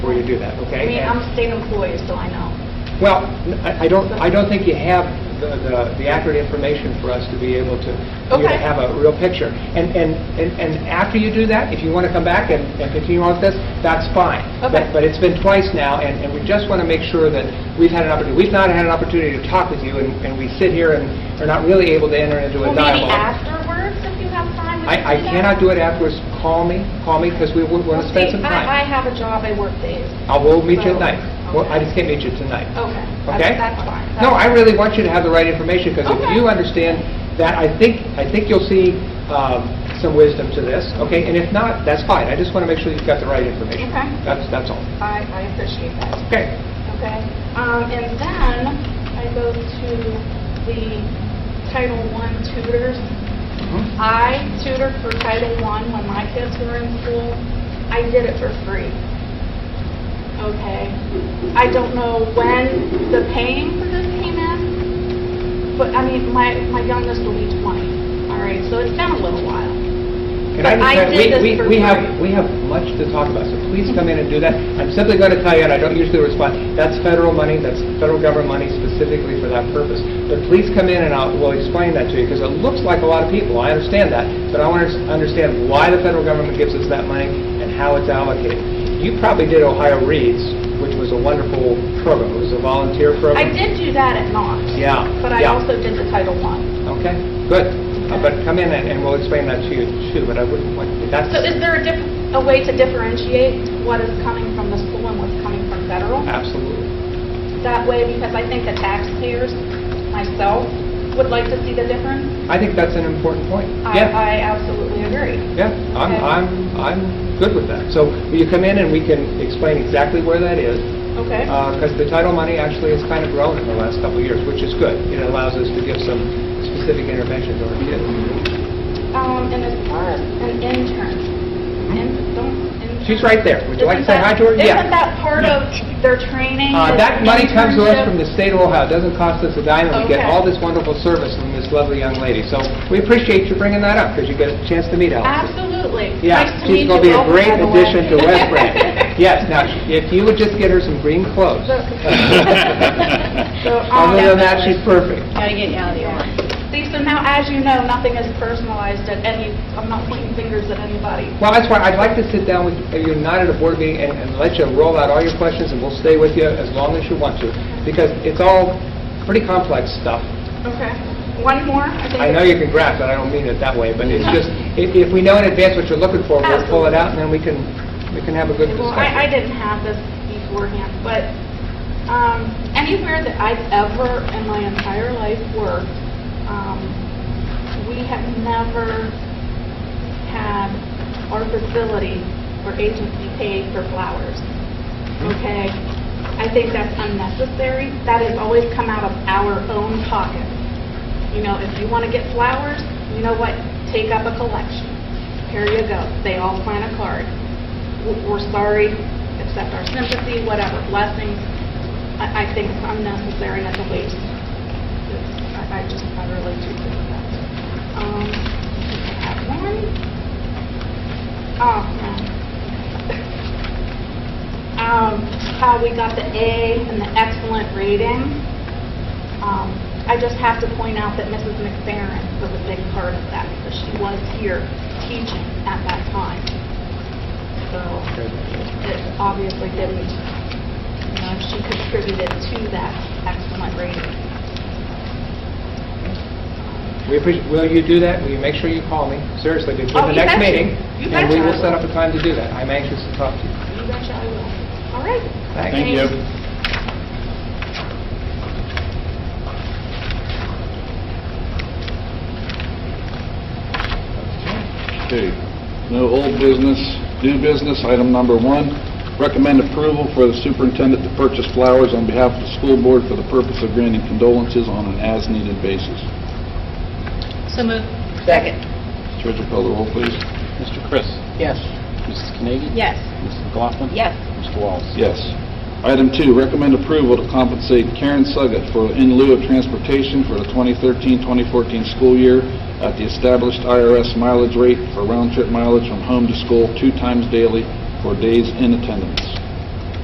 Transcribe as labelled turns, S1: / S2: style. S1: to do that,
S2: I
S1: okay?
S2: mean, I'm
S1: And-
S2: a state employee, so I know.
S1: Well, I I don't, I don't think you have the- the the accurate information for us to be able to, for you to
S2: Okay.
S1: have a real picture. And, and, and and after you do that, if you want to come back and and continue on with this, that's fine.
S2: Okay.
S1: But- But it's been twice now, and, and we just want to make sure that we've had an opportunity, we've not had an opportunity to talk with you, and, and we sit here and are not really able to enter into a
S2: Well, maybe
S1: dialogue.
S2: afterwards, if you have time.
S1: I, I cannot do it afterwards. Call me, call me, because we want to spend some
S2: I
S1: time.
S2: have a job, I work days.
S1: I will meet you at night. Well, I
S2: Okay.
S1: just can't meet you tonight.
S2: Okay.
S1: Okay?
S2: That's that's fine.
S1: No, I really want you to have the right information, because if
S2: Okay.
S1: you understand that, I think, I think you'll see um, some wisdom to this, okay? And if not, that's fine, I just want to make sure you've got the right information.
S2: Okay.
S1: That's, that's all.
S2: I, I appreciate that.
S1: Okay.
S2: Okay, um, and then I go to the Title I tutors.
S1: Mhm.
S2: I tutored for Title I when my kids were in school. I did it for free. Okay, I don't know when the paying for this came in, but I mean, my, my youngest will be 20, all right, so it's been a little while.
S1: And I
S2: But I
S1: understand-
S2: did
S1: we-
S2: this
S1: we-
S2: for
S1: We have,
S2: free.
S1: we have much to talk about, so please come in and do that. I'm simply going to tell you, and I don't usually respond, that's federal money, that's federal government money specifically for that purpose. But please come in and I'll, we'll explain that to you, because it looks like a lot of people, I understand that, but I want to understand why the federal government gives us that money and how it's allocated. You probably did Ohio Reads, which was a wonderful program, it was a volunteer
S2: I
S1: program.
S2: did do that at Knox,
S1: Yeah.
S2: but I
S1: yeah.
S2: also did the Title I.
S1: Okay, good. Uh, But come in and and we'll explain that to you too, but I wouldn't want, that's...
S2: So is there a diff, a way to differentiate what is coming from the school and what's coming from federal?
S1: Absolutely.
S2: That way, because I think the taxpayers, myself, would like to see the difference.
S1: I think that's an important point.
S2: I-
S1: Yeah,
S2: I absolutely agree.
S1: yeah, I'm,
S2: Okay.
S1: I'm, I'm good with that. So will you come in and we can explain exactly where that is?
S2: Okay,
S1: Because the title money actually has kind of grown in the last couple of years, which is good. It allows us to give some specific interventions on our kids.
S2: um, and as far as an intern, in, don't. intern-
S1: She's right there. Hmm? Would you like to say hi to her?
S2: Isn't that-
S1: Yeah.
S2: Isn't that part of their training?
S1: Uh,
S2: is
S1: That money comes to us
S2: internship?
S1: from the state of Ohio. It doesn't cost us a dime, and we get
S2: Okay.
S1: all this wonderful service from this lovely young lady. So we appreciate you bringing that up because you get a chance to meet Allison.
S2: Absolutely.
S1: Yeah,
S2: Nice to meet
S1: she's going to be
S2: you
S1: a
S2: both,
S1: great
S2: by the way.
S1: addition to West Branch. Yes, now, if you would just get her some green clothes.
S2: So- So, um,
S1: Other than that, she's perfect.
S3: Gotta get you out of the yard.
S2: See, so now, as you know, nothing is personalized at any, I'm not pointing fingers at anybody.
S1: Well, that's why I'd like to sit down with you, not at a board meeting, and- and let you roll out all your questions, and we'll stay with you as long as you want to, because it's all pretty complex stuff.
S2: Okay. One more? think
S1: I know you can grasp it, I don't mean it that way, but it's just, if if we know in advance what you're looking for, we'll pull it out, and then we can, we can have a good
S2: Well, I, I
S1: discussion.
S2: didn't have this beforehand, but, um, anywhere that I've ever in my entire life worked, um, we have never had our facility or agency paid for flowers. Okay? I think that's unnecessary. That has always come out of our own pocket. You know, if you want to get flowers, you know what? Take up a collection. Here you go. They all sign a card w- we're sorry, accept our sympathy, whatever, blessings. I, I think it's unnecessary and it's a waste. It's- I I just, I really do think that. Um, I have one. Oh, no. Um, how we got the A and the excellent rating. Um, I just have to point out that Mrs. McFerrin was a big part of that because she was here teaching at that time. So it obviously didn't, you know, she contributed to that excellent rating.
S1: We appreciate, will you do that? Will you make sure you call me, seriously, before
S2: Oh,
S1: the
S2: you
S1: next
S2: betcha.
S1: meeting?
S2: You
S1: And we
S2: betcha I
S1: will set
S2: will.
S1: up a time to do that. I'm anxious to talk to you.
S2: You betcha I will. All right.
S1: Thanks.
S4: Thank you. Okay, no old business, new business, item number one, recommend approval for the superintendent to purchase flowers on behalf of the school board for the purpose of granting condolences on an as-needed basis.
S3: So moved.
S4: Treasurer call the roll, please.
S5: Mr. Chris.
S3: Yes.
S5: Mrs. Carnegie.
S3: Yes.
S5: Mrs. McLaughlin.
S3: Yes.
S5: Mr. Wallace.
S4: Yes. Item two, recommend approval to compensate Karen Suggett for in lieu of transportation for the 2013-2014 school year at the established IRS mileage rate for round-trip mileage from home to school two times daily for days in attendance.